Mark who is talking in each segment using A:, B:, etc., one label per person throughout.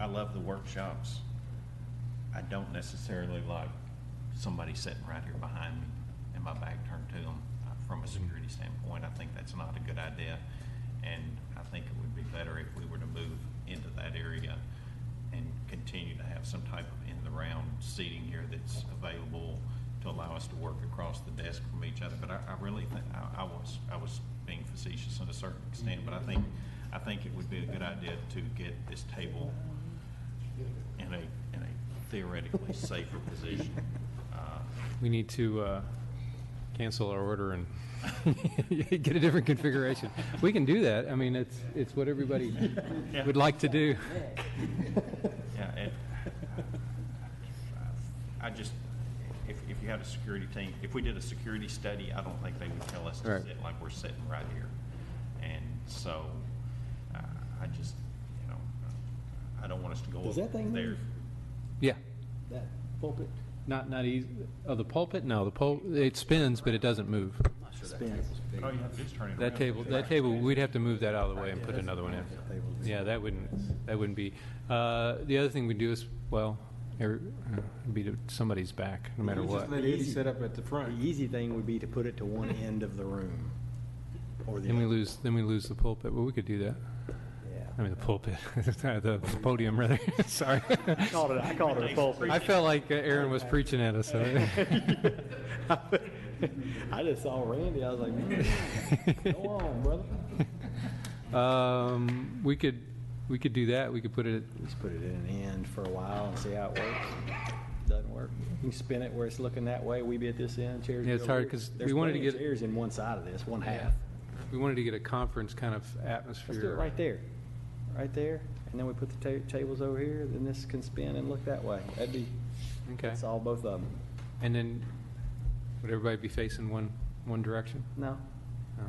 A: I love the workshops. I don't necessarily like somebody sitting right here behind me and my back turned to them. From a security standpoint, I think that's not a good idea. And I think it would be better if we were to move into that area and continue to have some type of in-the-round seating here that's available to allow us to work across the desk from each other. But I, I really think, I, I was, I was being facetious in a certain extent, but I think, I think it would be a good idea to get this table in a, in a theoretically safer position. Uh,
B: We need to uh, cancel our order and get a different configuration. We can do that. I mean, it's, it's what everybody
A: Yeah.
B: would like to do.
A: Yeah, and I just, if, if you had a security team, if we did a security study, I don't think they would tell us to
B: Right.
A: sit like we're sitting right here. And so, uh, I just, you know, uh, I don't want us to go
C: Does that thing
A: up there.
C: move?
B: Yeah,
C: That pulpit
B: not, not easy, oh, the pulpit? No, the pul, it spins, but it doesn't move.
C: spins.
A: All Oh, you have to do is turn it
B: That
A: around.
B: table, that table, we'd have to move that out of the way and put another one in. Yeah, that wouldn't, that wouldn't be, uh, the other thing we do is, well, er- uh, be to somebody's back, no matter
D: You
B: what.
D: Just let Eddie set up at the
C: The
D: front.
C: easy thing would be to put it to one end of the room. Or the
B: Then we
C: other.
B: lose, then we lose the pulpit, but we could do that. I
C: Yeah.
B: mean, the pulpit, the podium, rather. Sorry.
C: I called it, I called it a pulpit.
B: I felt like uh, Aaron was preaching at us. so-
C: I just saw Randy, I was like, man, go on, brother.
B: Um, we could, we could do that. We could put it,
C: Just put it in an end for a while and see how it works. Doesn't work. You can spin it where it's looking that way, we be at this end, chairs.
B: Yeah, it's
C: be over
B: hard
C: here.
B: 'cause we
C: There's
B: wanted to
C: plenty of
B: get-
C: Chairs in one side of this, one half.
B: Yeah. we wanted to get a conference kind of atmosphere.
C: Let's do it right there, right there, and then we put the ta- tables over here, then this can spin and look that way. That'd be,
B: Okay.
C: solve both of them.
B: And then would everybody be facing one, one direction? Oh.
C: No,
B: No.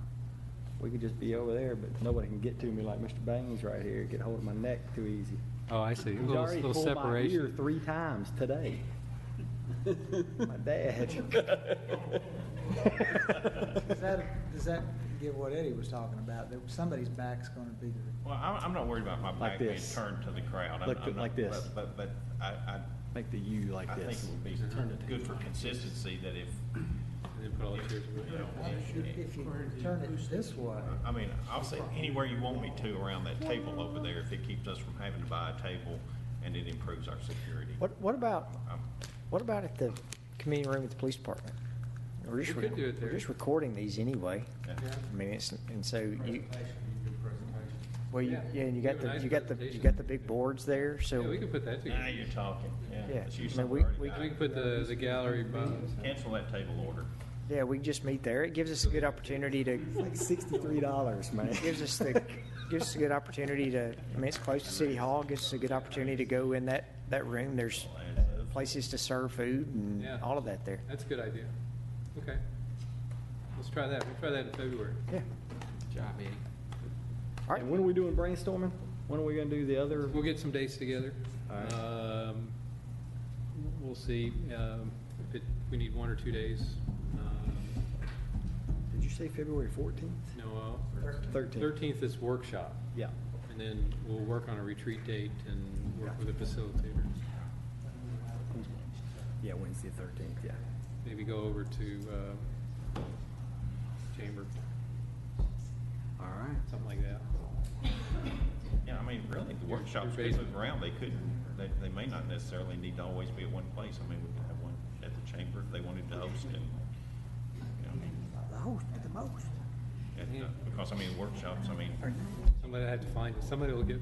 C: we could just be over there, but nobody can get to me like Mr. Baines right here, get hold of my neck too easy.
B: Oh, I see. A
C: He's
B: little,
C: already
B: little
C: pulled my ear
B: separation.
C: three times today. My dad.
E: Does that, does that get what Eddie was talking about, that somebody's back's gonna be the,
A: Well, I'm, I'm not worried about my back being
C: this.
A: turned to the crowd. I'm-
C: Like-
A: I'm not-
C: like this.
A: But, but but I, I,
C: Make the U like
A: I think
C: this.
A: it would be good for consistency that if, you know, if-
E: if you turn it this way,
A: I mean, I'll sit anywhere you want me to around that table over there if it keeps us from having to buy a table and it improves our security.
F: What, what about,
A: Um,
F: what about at the community room at the police department? We're just,
B: We could do it
F: rec- we're
B: there.
F: just recording these anyway.
A: yeah.
F: I mean, it's, and so you, well, you,
B: Yeah.
F: yeah, and you
B: Do
F: got
B: a
F: the,
B: nice
F: you got the, you
B: presentation.
F: got the big boards there,
B: Yeah, we
F: so,
B: could put that
A: Now
B: together.
A: you're talking, yeah.
F: Yeah.
A: Let's use
F: I mean,
A: something
F: we-
A: already
F: we-
A: got.
B: We could put the, the gallery behind.
A: Cancel that table order.
F: yeah, we can just meet there. It gives us a good opportunity to,
C: Like sixty-three dollars, man.
F: gives us the, gives us a good opportunity to, I mean, it's close to City Hall, gives us a good opportunity to go in that, that room. There's places to serve food and
B: Yeah.
F: all of that there.
B: That's a good idea. Okay. Let's try that. We'll try that in February.
F: Yeah. All right.
C: And when are we doing brainstorming? When are we gonna do the other?
B: We'll get some dates together.
C: All right.
B: Um, We'll see um, if it, we need one or two days. Um,
C: Did you say February fourteenth?
B: No, uh,
C: Thirteenth.
B: thirteenth is workshop,
C: Yeah.
B: and then we'll work on a retreat date and work with a facilitator.
C: Yeah, Wednesday, thirteenth, yeah.
B: Maybe go over to uh, chamber,
D: All right.
B: something like that.
A: Yeah, I mean, really, the workshops could move around. They couldn't, they, they may not necessarily need to always be at one place. I mean, we could have one at the chamber if they wanted to host it. you know,
E: the host, the most.
A: at, uh, Because, I mean, workshops, I mean,
B: Somebody had to find, somebody will get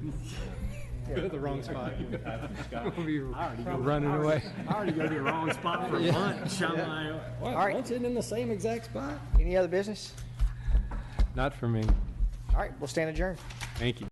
B: go to the wrong spot. We'll be Running away.
D: I already go to the wrong spot for lunch. I'm like,
C: What,
F: All right.
C: lunch isn't in the same exact spot?
F: Any other business?
B: Not for me.
F: All right, we'll stand adjourned.
B: Thank you.